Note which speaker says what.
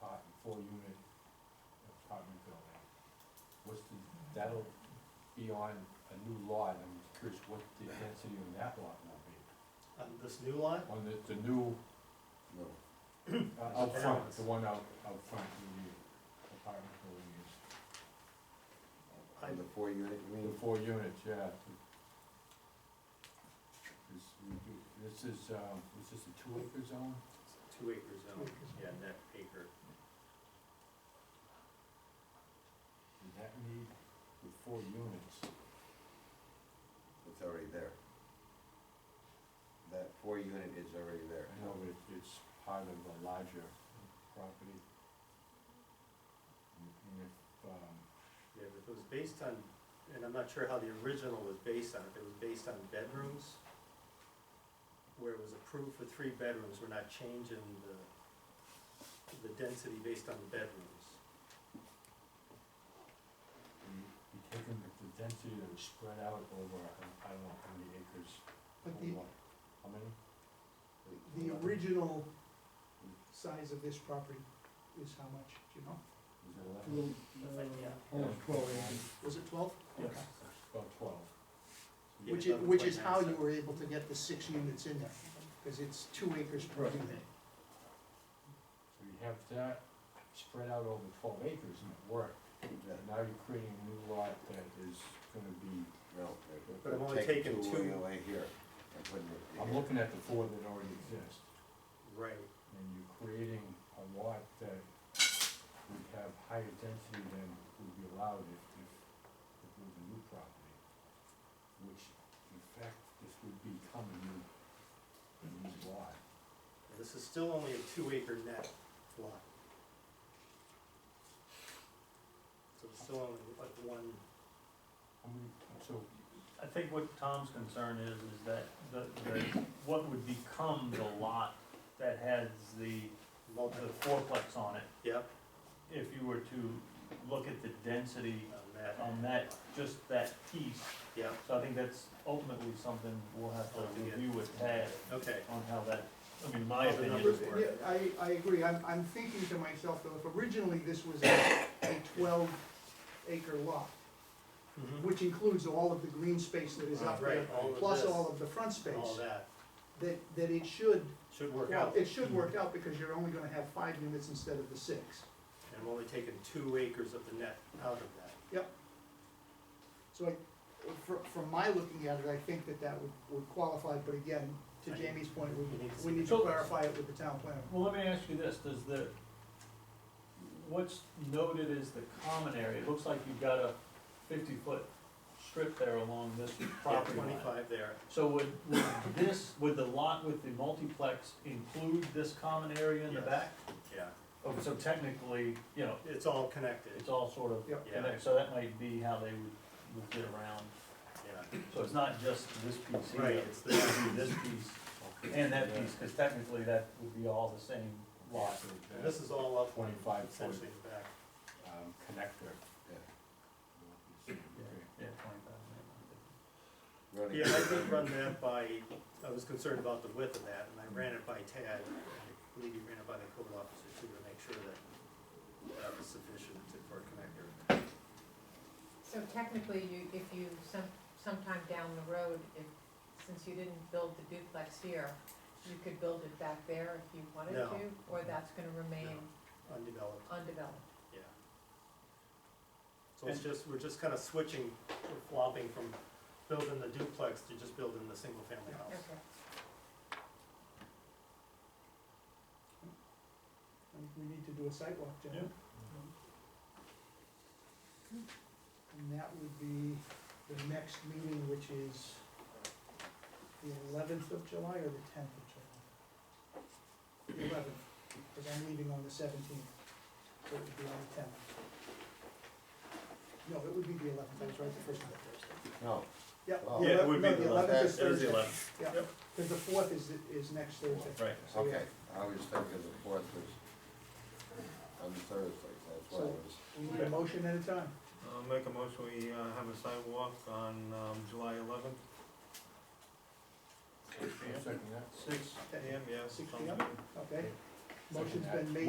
Speaker 1: four-unit apartment building. What's the, that'll be on a new lot, and I'm curious what the density on that lot will be.
Speaker 2: on this new line,
Speaker 1: On the, the new,
Speaker 3: No,
Speaker 1: uh, out front, the one out, out front, the apartment building is.
Speaker 2: I-
Speaker 3: on the four unit, you
Speaker 1: The
Speaker 3: mean?
Speaker 1: four units, yeah. This- This is, um, was this a two acre zone?
Speaker 4: Two acre zone,
Speaker 2: Two acre zone.
Speaker 4: yeah, net acre.
Speaker 1: Does that need, with four units,
Speaker 3: It's already there. That four unit is already there.
Speaker 1: I know it, it's part of a larger property. And and if, um,
Speaker 4: Yeah, but if it was based on, and I'm not sure how the original was based on, if it was based on bedrooms, where it was approved for three bedrooms, we're not changing the, the density based on the bedrooms.
Speaker 1: we, we taken the the density that was spread out over, I don't know, how many acres?
Speaker 5: But
Speaker 1: or
Speaker 5: the,
Speaker 1: what? How many?
Speaker 5: the original size of this property is how much, do you know?
Speaker 1: Was it eleven?
Speaker 5: Mm, Almost twelve acres.
Speaker 2: was it twelve?
Speaker 5: Yes.
Speaker 1: About twelve.
Speaker 4: Yeah,
Speaker 5: Which is,
Speaker 4: eleven
Speaker 5: which
Speaker 4: point
Speaker 5: is
Speaker 4: nine
Speaker 5: how you
Speaker 4: seven.
Speaker 5: were able to get the six units in there, because it's two acres per
Speaker 1: Right.
Speaker 5: unit.
Speaker 1: So you have that spread out over twelve acres and it worked.
Speaker 3: Yeah,
Speaker 1: Now you're creating a new lot that is gonna be,
Speaker 3: No,
Speaker 4: But I'm only
Speaker 3: they're taking
Speaker 4: taking
Speaker 3: two
Speaker 4: two,
Speaker 3: away here and putting it
Speaker 1: I'm
Speaker 3: here.
Speaker 1: looking at the four that already exist.
Speaker 4: right,
Speaker 1: And you're creating a lot that would have higher density than would be allowed if, if, if it was a new property. Which, in fact, this would become a new, a new lot.
Speaker 4: this is still only a two acre net lot. So it's still only like one,
Speaker 1: I mean, so,
Speaker 6: I think what Tom's concern is, is that the, the, what would become the lot that has the,
Speaker 4: multi,
Speaker 6: the fourplex on it,
Speaker 4: yep,
Speaker 6: if you were to look at the density
Speaker 4: on that.
Speaker 6: on that, just that piece.
Speaker 4: uh, Yep,
Speaker 6: So I think that's ultimately something we'll have to
Speaker 4: Altogether.
Speaker 6: review with Tad
Speaker 4: okay.
Speaker 6: on how that, I mean, my
Speaker 4: How the
Speaker 6: opinion.
Speaker 4: numbers
Speaker 6: is-
Speaker 4: work.
Speaker 5: Yeah, I, I agree, I'm, I'm thinking to myself, though, if originally this was a a twelve acre lot,
Speaker 4: Mhm.
Speaker 5: which includes all of the green space that is up there,
Speaker 4: Right, all of
Speaker 5: plus
Speaker 4: this,
Speaker 5: all of the front space,
Speaker 4: All that,
Speaker 5: that, that it should,
Speaker 4: should work
Speaker 5: well,
Speaker 4: out,
Speaker 5: it should work out, because you're only gonna have five units instead of the six.
Speaker 4: and we're only taking two acres of the net out of that.
Speaker 5: So I, from, from my looking at it, I think that that would, would qualify, but again, to Jamie's point, we, we need to clarify it with the town planner.
Speaker 6: Well, let me ask you this, does the, what's noted as the common area, it looks like you've got a fifty-foot strip there along this
Speaker 4: Yeah,
Speaker 6: property line.
Speaker 4: twenty-five there,
Speaker 6: So would, would this, would the lot with the multiplex include this common area in the
Speaker 4: Yes.
Speaker 6: back?
Speaker 4: yeah,
Speaker 6: Oh, so technically, you know,
Speaker 4: it's all connected,
Speaker 6: it's all sort of
Speaker 5: Yeah.
Speaker 4: yeah,
Speaker 6: connected, so that might be how they would, would get around.
Speaker 4: yeah,
Speaker 6: So it's not just this piece here.
Speaker 4: Right, it's the-
Speaker 6: It would be this piece and that piece, because technically that would be all the same lot.
Speaker 1: lots of
Speaker 4: And
Speaker 1: that,
Speaker 4: this is all up
Speaker 1: Twenty-five foot.
Speaker 4: essentially in the back.
Speaker 1: um, connector.
Speaker 3: Yeah.
Speaker 1: Okay.
Speaker 6: Yeah, twenty-five.
Speaker 3: Running
Speaker 4: Yeah, I
Speaker 3: it.
Speaker 4: did run that by, I was concerned about the width of that, and I ran it by Tad, and I believe you ran it by the code officer too, to make sure that that was sufficient to- for a connector.
Speaker 7: So technically, you, if you, some, sometime down the road, if, since you didn't build the duplex here, you could build it back there if you wanted
Speaker 4: No.
Speaker 7: to, or that's gonna remain
Speaker 4: Undeveloped,
Speaker 7: undeveloped?
Speaker 4: yeah. So it's just, we're just kind of switching, we're flopping from building the duplex to just building the single-family house.
Speaker 7: Okay.
Speaker 5: And We need to do a sidewalk, Jen.
Speaker 6: Yeah.
Speaker 5: And that would be the next meeting, which is the eleventh of July or the tenth of July? Eleventh, because I'm leaving on the seventeenth, so it would be on the tenth. No, it would be the eleventh, I was right the first time.
Speaker 3: No,
Speaker 5: Yeah.
Speaker 3: Oh.
Speaker 5: the
Speaker 3: Yeah,
Speaker 4: it would
Speaker 5: eleventh-
Speaker 4: be the
Speaker 5: no, eleventh is
Speaker 4: It is
Speaker 5: Thursday.
Speaker 4: the eleventh.
Speaker 5: Yeah,
Speaker 4: Yep.
Speaker 5: because the fourth is, is next Thursday.
Speaker 6: Right.
Speaker 5: So, yeah,
Speaker 3: okay, I was thinking the fourth was on Thursday, that's why I
Speaker 5: So-
Speaker 3: was.
Speaker 5: We need a motion at a time.
Speaker 8: I'll make a motion, we uh, have a sidewalk on um, July eleventh,
Speaker 1: Second that.
Speaker 6: Six
Speaker 8: AM, yes.
Speaker 5: Six
Speaker 8: sounds
Speaker 5: PM?
Speaker 8: good.
Speaker 5: Okay, motion's been made